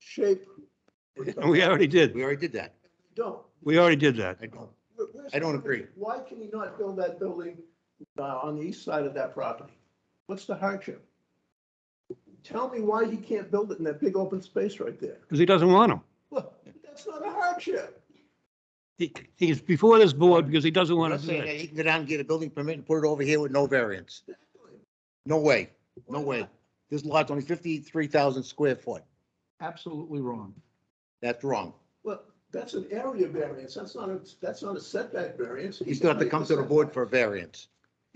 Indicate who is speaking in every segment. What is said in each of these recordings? Speaker 1: shape.
Speaker 2: We already did.
Speaker 3: We already did that.
Speaker 1: Don't.
Speaker 2: We already did that.
Speaker 3: I don't,
Speaker 1: Where- where's-
Speaker 3: I don't agree.
Speaker 1: Why can he not build that building uh, on the east side of that property? What's the hardship? Tell me why he can't build it in that big open space right there.
Speaker 2: Because he doesn't want them.
Speaker 1: Look, that's not a hardship.
Speaker 2: He, he's before this board because he doesn't
Speaker 3: I'm
Speaker 2: want
Speaker 3: not
Speaker 2: to do
Speaker 3: saying that
Speaker 2: it.
Speaker 3: he can go down and get a building permit and put it over here with no variance. No way, no way. This lot's only fifty-three thousand square foot.
Speaker 4: Absolutely wrong.
Speaker 3: That's wrong.
Speaker 1: Well, that's an area variance. That's not a, that's not a setback variance.
Speaker 3: You still have to come to the board for a variance.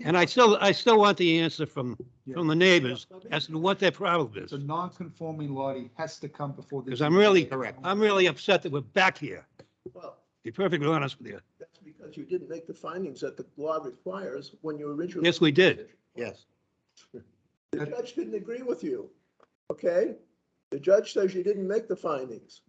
Speaker 2: And I still, I still want the answer from, from the neighbors as to what their problem
Speaker 4: It's
Speaker 2: is.
Speaker 4: a non-conforming lot. He has to come before. the-
Speaker 2: 'Cause I'm really-
Speaker 3: Correct.
Speaker 2: I'm really upset that we're back here.
Speaker 1: Well,
Speaker 2: Be perfectly honest with you.
Speaker 1: that's because you didn't make the findings that the law requires when you originally.
Speaker 2: Yes, we did.
Speaker 3: Yes.
Speaker 1: The judge didn't agree with you, okay? The judge says you didn't make the findings.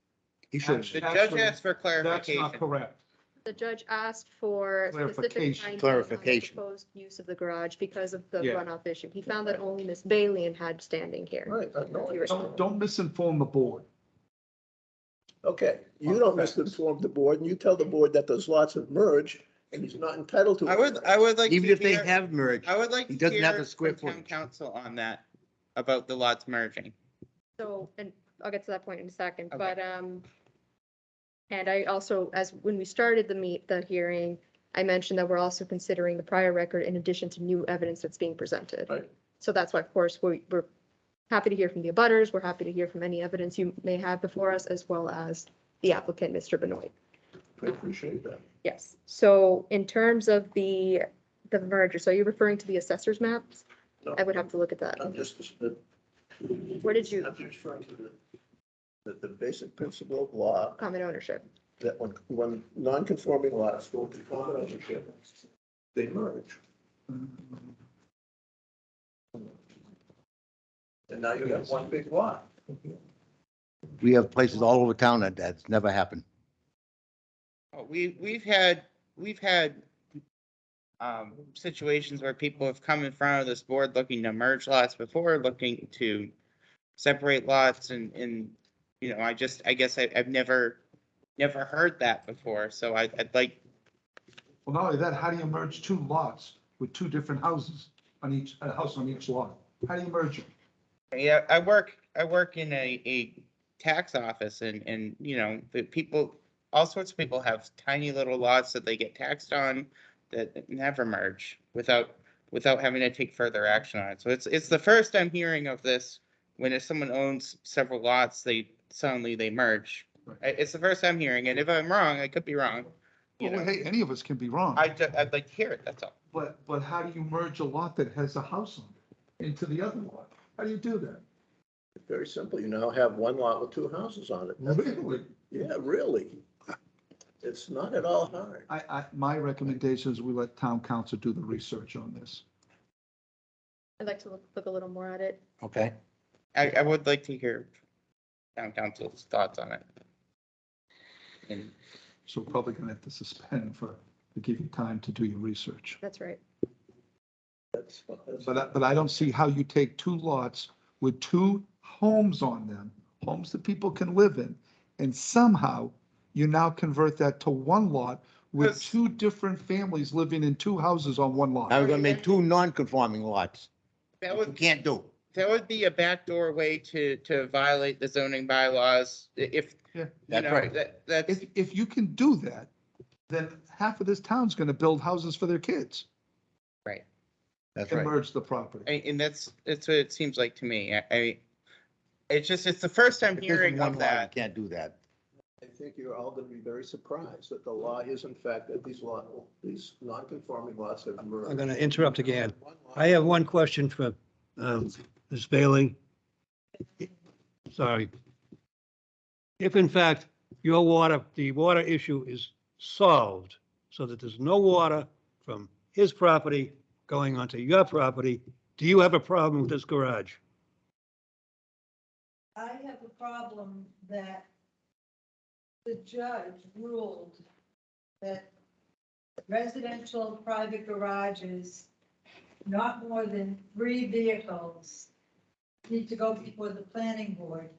Speaker 3: He
Speaker 4: shouldn't.
Speaker 5: The judge
Speaker 4: Actually,
Speaker 5: asked for
Speaker 4: That's
Speaker 5: clarification.
Speaker 4: not correct.
Speaker 6: The judge asked for specific
Speaker 4: Clarification.
Speaker 6: findings on the
Speaker 3: Clarification.
Speaker 6: proposed use of the garage because of the
Speaker 4: Yeah.
Speaker 6: runoff issue. He found that only Miss Balian had standing here.
Speaker 1: Right, I know. it.
Speaker 4: Don't, don't misinform the board.
Speaker 1: Okay, you don't misinform the board and you tell the board that those lots have merged and he's not entitled to.
Speaker 5: I would, I would like.
Speaker 3: Even
Speaker 5: to
Speaker 3: if they
Speaker 5: hear-
Speaker 3: have merged,
Speaker 5: I would like.
Speaker 3: he
Speaker 5: to
Speaker 3: doesn't have
Speaker 5: hear
Speaker 3: the square
Speaker 5: from town
Speaker 3: footage.
Speaker 5: Council on that, about the lots merging.
Speaker 6: So, and I'll get to that point in a second,
Speaker 5: Okay.
Speaker 6: but, um, and I also, as, when we started the meet, the hearing, I mentioned that we're also considering the prior record in addition to new evidence that's being presented.
Speaker 1: Right.
Speaker 6: So that's why, of course, we, we're happy to hear from the abutters. We're happy to hear from any evidence you may have before us, as well as the applicant, Mr. Benoit.
Speaker 1: I appreciate that.
Speaker 6: Yes, so in terms of the, the merger, so you're referring to the assessor's maps?
Speaker 1: No.
Speaker 6: I would have to look at that.
Speaker 1: I'm just, the-
Speaker 6: Where did you
Speaker 1: I'm just trying to, the- the, the basic principle of law
Speaker 6: common ownership?
Speaker 1: that when, when non-conforming lots go into common ownership, they merge. And now you have one big lot.
Speaker 3: we have places all over town that that's never happened.
Speaker 5: Oh, We, we've had, we've had um, situations where people have come in front of this board looking to merge lots before, looking to separate lots and, and, you know, I just, I guess I, I've never, never heard that before, so I, I'd like,
Speaker 4: Well, not only that, how do you merge two lots with two different houses on each, a house on each lot? How do you merge them?
Speaker 5: yeah, I work, I work in a, a tax office and, and, you know, the people, all sorts of people have tiny little lots that they get taxed on that never merge without, without having to take further action on it. So it's, it's the first I'm hearing of this, when if someone owns several lots, they, suddenly they merge.
Speaker 4: Right.
Speaker 5: I- It's the first I'm hearing, and if I'm wrong, I could be wrong. You
Speaker 4: Well,
Speaker 5: know,
Speaker 4: hey, any of us can be wrong.
Speaker 5: I, ju- I'd like to hear it, that's all.
Speaker 4: But, but how do you merge a lot that has a house on it into the other lot? How do you do that?
Speaker 1: Very simple, you now have one lot with two houses on it.
Speaker 4: Really?
Speaker 1: Yeah, really. It's not at all hard.
Speaker 4: I, I, my recommendation is we let town council do the research on this.
Speaker 6: I'd like to look, look a little more at it.
Speaker 3: Okay.
Speaker 5: I, I would like to hear town council's thoughts on it. And
Speaker 4: So we're probably gonna have to suspend for, to give you time to do your research.
Speaker 6: That's right.
Speaker 1: That's, that's-
Speaker 4: But, I- but I don't see how you take two lots with two homes on them, homes that people can live in, and somehow you now convert that to one lot with
Speaker 5: Yes.
Speaker 4: two different families living in two houses on one
Speaker 3: Now
Speaker 4: lot.
Speaker 3: we're gonna make two non-conforming lots,
Speaker 5: that
Speaker 3: which we
Speaker 5: would
Speaker 3: can't do.
Speaker 5: That would be a backdoor way to, to violate the zoning bylaws i- if.
Speaker 4: Yeah.
Speaker 5: you
Speaker 3: That's
Speaker 5: know,
Speaker 3: right.
Speaker 5: That, that's,
Speaker 4: If, if you can do that, then half of this town's gonna build houses for their kids
Speaker 3: That's
Speaker 4: and
Speaker 3: right.
Speaker 4: merge the property.
Speaker 5: I- and that's, that's what it seems like to me. I- I, it's just, it's the first I'm
Speaker 3: If this is
Speaker 5: hearing
Speaker 3: one
Speaker 5: of
Speaker 3: lot, we
Speaker 5: that.
Speaker 3: Can't do that.
Speaker 1: I think you're all gonna be very surprised that the law is in fact that these lot, these non-conforming lots have
Speaker 2: I'm
Speaker 1: merged.
Speaker 2: going to interrupt again. I have one question for um, Ms. Bailey. Sorry. If in fact your water, the water issue is solved so that there's no water from his property going onto your property, do you have a problem with this garage?
Speaker 7: I have a problem that the judge ruled that residential private garages, not more than three vehicles, need to go before the planning board.